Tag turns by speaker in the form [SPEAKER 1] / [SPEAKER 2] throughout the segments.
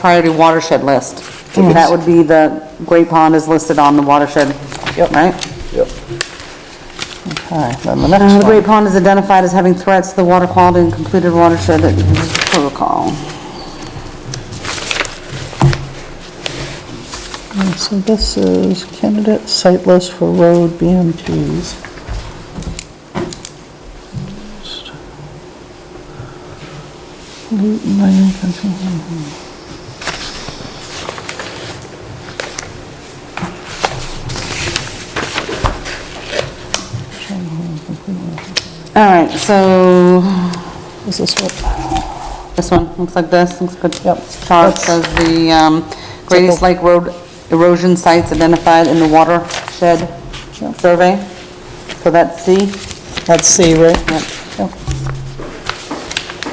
[SPEAKER 1] priority watershed list. That would be the, Great Pond is listed on the watershed, right?
[SPEAKER 2] Yep.
[SPEAKER 3] Okay, then the
[SPEAKER 1] Uh, The
[SPEAKER 3] next one.
[SPEAKER 1] Great Pond is identified as having threats to the water quality and completed watershed protocol.
[SPEAKER 3] So this is candidate site list for road BMTs.
[SPEAKER 1] All right, so
[SPEAKER 3] Is this what?
[SPEAKER 1] this one, looks like this, looks good.
[SPEAKER 3] Yep.
[SPEAKER 1] Chart says the um, Great East Lake Road erosion sites identified in the watershed survey. So that's C.
[SPEAKER 3] That's C, right?
[SPEAKER 1] Yep.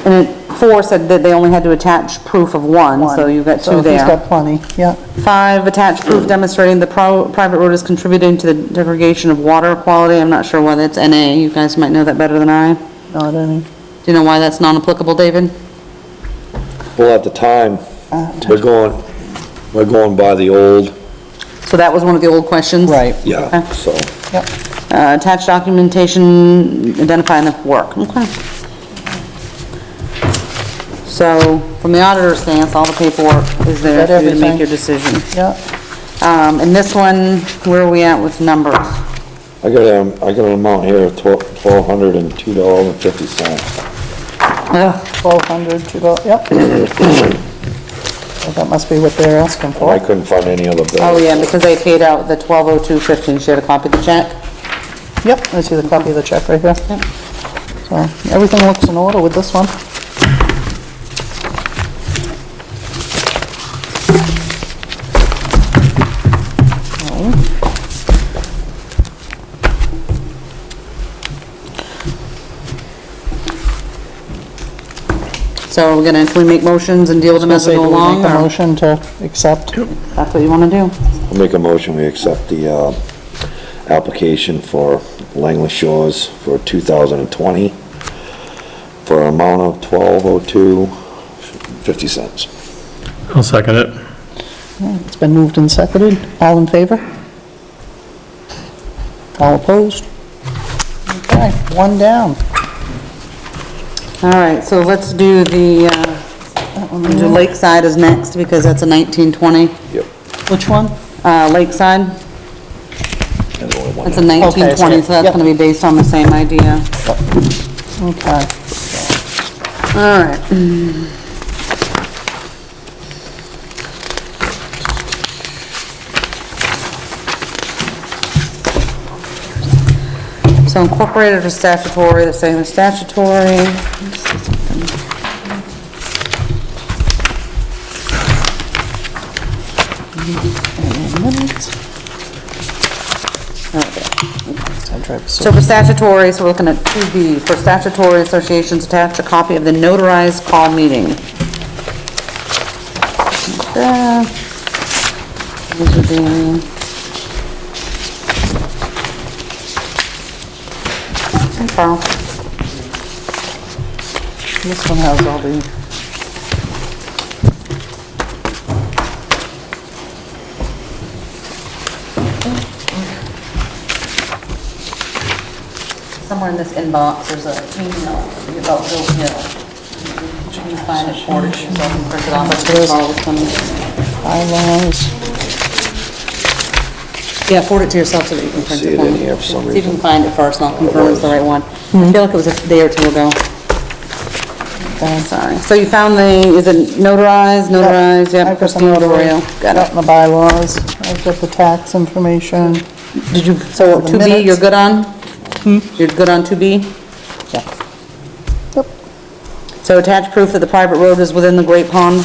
[SPEAKER 1] And it- four said that they only had to attach proof of one, so you've got two
[SPEAKER 3] So he's
[SPEAKER 1] there.
[SPEAKER 3] got plenty, yeah.
[SPEAKER 1] Five, attach proof demonstrating the pro- private road is contributing to the degradation of water quality. I'm not sure why that's NA, you guys might know that better than I. Do
[SPEAKER 3] Not any.
[SPEAKER 1] you know why that's non-applicable, David?
[SPEAKER 2] Well, at the time, we're going, we're going by the old,
[SPEAKER 1] So that was one of the old questions?
[SPEAKER 3] Right,
[SPEAKER 2] yeah,
[SPEAKER 1] Okay.
[SPEAKER 2] so.
[SPEAKER 3] yep.
[SPEAKER 1] Uh, attach documentation identifying the work, okay. So, from the auditor's stance, all the paperwork is there
[SPEAKER 3] Is that
[SPEAKER 1] for you to make
[SPEAKER 3] everything?
[SPEAKER 1] your decision.
[SPEAKER 3] Yeah,
[SPEAKER 1] Um, and this one, where are we at with numbers?
[SPEAKER 2] I got, um, I got an amount here of twelve, twelve hundred and two dollars and fifty cents.
[SPEAKER 1] Ugh,
[SPEAKER 3] 1,200 to go, yep. Well, That must be what they're asking
[SPEAKER 2] And I
[SPEAKER 3] for.
[SPEAKER 2] couldn't find any other bill.
[SPEAKER 1] Oh, yeah, because they paid out the twelve oh two fifteen, she had a copy of the check.
[SPEAKER 3] Yep, I see the copy of the check right here. So, everything looks in order with this one.
[SPEAKER 1] So we're gonna, can we make motions and deal with them as we
[SPEAKER 3] Say,
[SPEAKER 1] go
[SPEAKER 3] do we
[SPEAKER 1] along,
[SPEAKER 3] Make a
[SPEAKER 1] or
[SPEAKER 3] motion to accept.
[SPEAKER 1] that's what you wanna do?
[SPEAKER 2] I'll Make a motion, we accept the, uh, application for Langley Shores for two thousand and twenty for an amount of twelve oh two fifty cents.
[SPEAKER 4] I'll second it.
[SPEAKER 3] It's been moved and seconded. All in favor? All opposed? Okay, one down.
[SPEAKER 1] All right, so let's do the, uh, do Lakeside is next, because that's a nineteen twenty.
[SPEAKER 2] Yep.
[SPEAKER 3] Which one?
[SPEAKER 1] Uh, Lakeside,
[SPEAKER 2] There's only one.
[SPEAKER 1] that's a nineteen twenty, so that's
[SPEAKER 3] yep.
[SPEAKER 1] gonna be based on the same idea.
[SPEAKER 3] Okay.
[SPEAKER 1] All right, so incorporated or statutory, they're saying they're statutory. So for statutory, so we're looking at 2B, for statutory associations, attach a copy of the notarized call meeting. Uh, These would be... Hey, Carl.
[SPEAKER 3] This one has all the,
[SPEAKER 1] Somewhere in this inbox, there's a email about Bill Hill. Should you find it for it, so I can print it off,
[SPEAKER 3] There is.
[SPEAKER 1] Carl, some-
[SPEAKER 3] bylaws.
[SPEAKER 1] Yeah, forward it to yourself so that you can print
[SPEAKER 2] See
[SPEAKER 1] it
[SPEAKER 2] it
[SPEAKER 1] for
[SPEAKER 2] in
[SPEAKER 1] me.
[SPEAKER 2] here for some
[SPEAKER 1] See if you
[SPEAKER 2] reason.
[SPEAKER 1] can find it first, and I'll confirm it's the right one.
[SPEAKER 3] Mm-hmm.
[SPEAKER 1] I feel like it was a day or two ago. Oh, Sorry. So you found the, is it notarized, notarized, yep,
[SPEAKER 3] I've got the
[SPEAKER 1] Christine Arroyo,
[SPEAKER 3] notary,
[SPEAKER 1] got
[SPEAKER 3] got the bylaws, I've got the tax information.
[SPEAKER 1] it. Did you, so
[SPEAKER 3] the Hmm?
[SPEAKER 1] 2B, you're
[SPEAKER 3] minutes.
[SPEAKER 1] good on? You're good on 2B?
[SPEAKER 3] Yep,
[SPEAKER 1] So attach proof that the private road is within the Great Pond,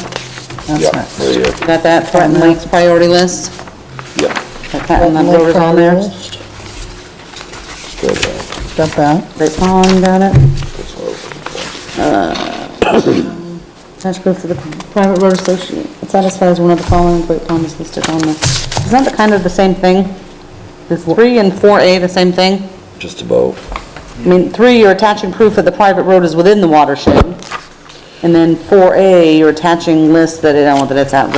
[SPEAKER 2] Yeah,
[SPEAKER 3] that's next.
[SPEAKER 2] there you go.
[SPEAKER 1] got that, Threatened Lakes priority list,
[SPEAKER 2] Yeah.
[SPEAKER 1] that Threatened Lake Road is on there.
[SPEAKER 2] Good, uh,
[SPEAKER 3] Got that,
[SPEAKER 1] Great Pond, got it.
[SPEAKER 2] that's what I was looking for.
[SPEAKER 1] Attach proof that the private road association satisfies one of the following Great Pond is listed on the, isn't that kind of the same thing? Is 3 and 4A the same thing?
[SPEAKER 2] Just about.
[SPEAKER 1] I mean, three, you're attaching proof that the private road is within the watershed. And then 4A, you're attaching lists that, I don't want that it's at